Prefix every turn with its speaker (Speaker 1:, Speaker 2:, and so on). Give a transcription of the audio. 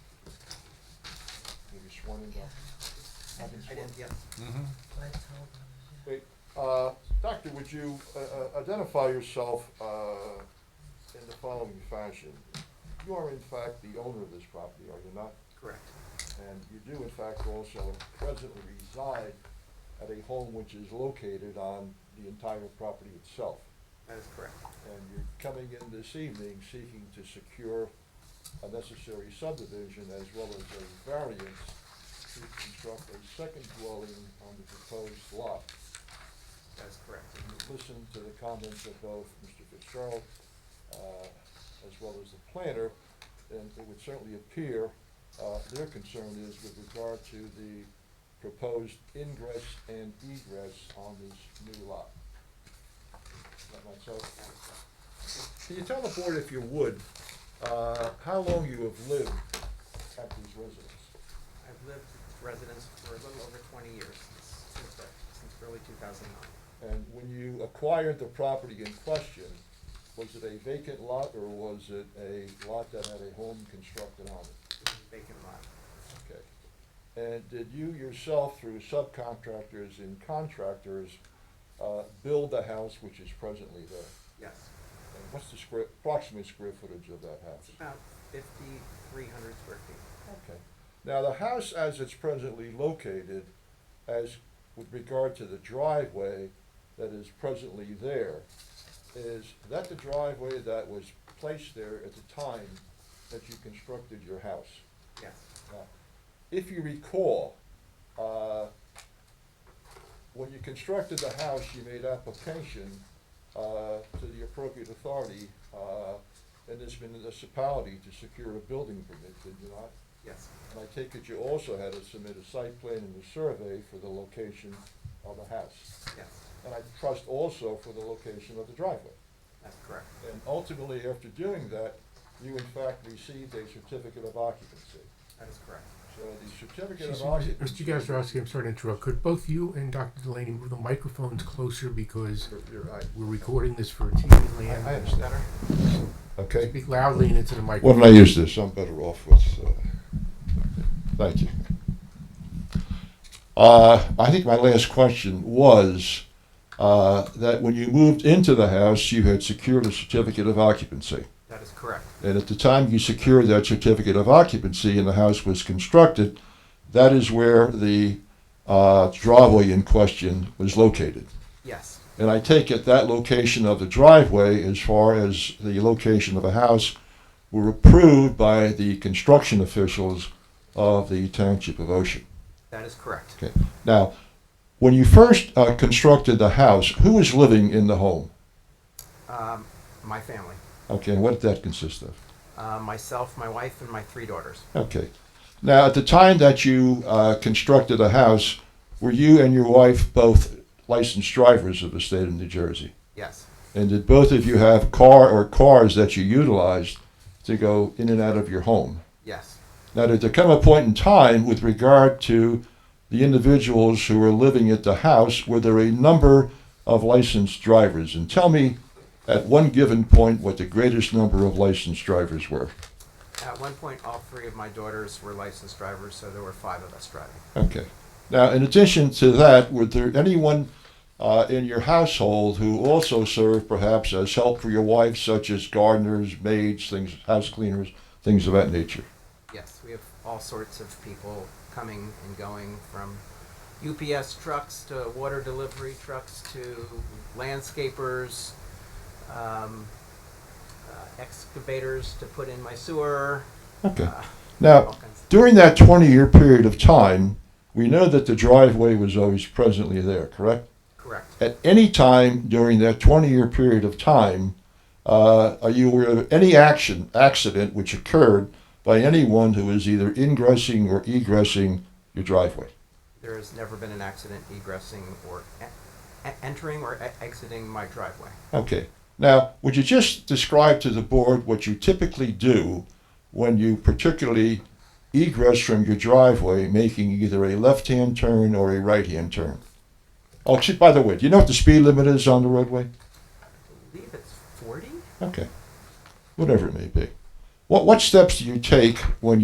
Speaker 1: one involved.
Speaker 2: I did, I did, yeah.
Speaker 1: Great. Uh, Doctor, would you uh, uh, identify yourself uh, in the following fashion? You are in fact the owner of this property, are you not?
Speaker 2: Correct.
Speaker 1: And you do in fact also presently reside at a home which is located on the entire property itself.
Speaker 2: That is correct.
Speaker 1: And you're coming in this evening seeking to secure a necessary subdivision as well as a variance to construct a second dwelling on the proposed lot.
Speaker 2: That is correct.
Speaker 1: Listen to the comments of both Mr. Fitzgerald, uh, as well as the planner, and it would certainly appear, uh, their concern is with regard to the proposed ingress and egress on this new lot. Is that myself?
Speaker 2: That is correct.
Speaker 1: Can you tell the board, if you would, uh, how long you have lived at this residence?
Speaker 2: I've lived with residents for a little over twenty years, since, since the- since early two thousand nine.
Speaker 1: And when you acquired the property in question, was it a vacant lot or was it a lot that had a home constructed on it?
Speaker 2: Vacant lot.
Speaker 1: Okay. And did you yourself, through subcontractors and contractors, uh, build the house which is presently there?
Speaker 2: Yes.
Speaker 1: And what's the square, approximate square footage of that
Speaker 2: It's
Speaker 1: house?
Speaker 2: about fifty-three hundred square feet.
Speaker 1: Okay. Now, the house as it's presently located, as with regard to the driveway that is presently there, is that the driveway that was placed there at the time that you constructed your house?
Speaker 2: Yes.
Speaker 1: Now, If you recall, uh, when you constructed the house, you made application uh, to the appropriate authority uh, in this municipality to secure a building permit, did you not?
Speaker 2: Yes.
Speaker 1: And I take it you also had to submit a site plan and a survey for the location of the house.
Speaker 2: Yes.
Speaker 1: And I trust also for the location of the driveway.
Speaker 2: That's correct.
Speaker 1: And ultimately, after doing that, you in fact received a certificate of occupancy.
Speaker 2: That is correct.
Speaker 1: So the certificate of occupancy.
Speaker 3: Mr. Gazarovski, I'm sorry to interrupt. Could both you and Dr. Delaney move the microphones closer because
Speaker 1: You're- you're right.
Speaker 3: we're recording this for TV
Speaker 1: I I
Speaker 3: land?
Speaker 1: understand. Okay.
Speaker 3: Speak loudly and into the
Speaker 1: Why
Speaker 3: microphone.
Speaker 1: don't I use this? I'm better off with, uh, thank you. Uh, I think my last question was, uh, that when you moved into the house, you had secured a certificate of occupancy.
Speaker 2: That is correct.
Speaker 1: And at the time you secured that certificate of occupancy and the house was constructed, that is where the, uh, driveway in question was located.
Speaker 2: Yes.
Speaker 1: And I take it that location of the driveway, as far as the location of a house, were approved by the construction officials of the Township of Ocean.
Speaker 2: That is correct.
Speaker 1: Okay. Now, when you first uh, constructed the house, who was living in the home?
Speaker 2: Um, my family,
Speaker 1: Okay, and what did that consist of?
Speaker 2: uh, myself, my wife, and my three daughters.
Speaker 1: Okay. Now, at the time that you uh, constructed the house, were you and your wife both licensed drivers of the state of New Jersey?
Speaker 2: Yes.
Speaker 1: And did both of you have car or cars that you utilized to go in and out of your home?
Speaker 2: Yes.
Speaker 1: Now, did there come a point in time with regard to the individuals who were living at the house, were there a number of licensed drivers? And tell me at one given point what the greatest number of licensed drivers were.
Speaker 2: At one point, all three of my daughters were licensed drivers, so there were five of us driving.
Speaker 1: Okay. Now, in addition to that, was there anyone uh, in your household who also served perhaps as help for your wife, such as gardeners, maids, things, house cleaners, things of that nature?
Speaker 2: Yes, we have all sorts of people coming and going from UPS trucks to water delivery trucks to landscapers, um, uh, excavators to put in my sewer.
Speaker 1: Okay.
Speaker 2: Uh, all
Speaker 1: Now,
Speaker 2: kinds.
Speaker 1: during that 20 year period of time, we know that the driveway was always presently there, correct?
Speaker 2: Correct.
Speaker 1: At any time during that 20 year period of time, uh, are you aware of any action, accident which occurred by anyone who is either ingressing or egressing your driveway?
Speaker 2: There has never been an accident egressing or e- e- entering or e- exiting my driveway.
Speaker 1: Okay. Now, would you just describe to the board what you typically do when you particularly egress from your driveway, making either a left-hand turn or a right-hand turn? Oh, actually, by the way, do you know what the speed limit is on the roadway?
Speaker 2: I believe it's 40?
Speaker 1: Okay. Whatever it may be. What, what steps do you take when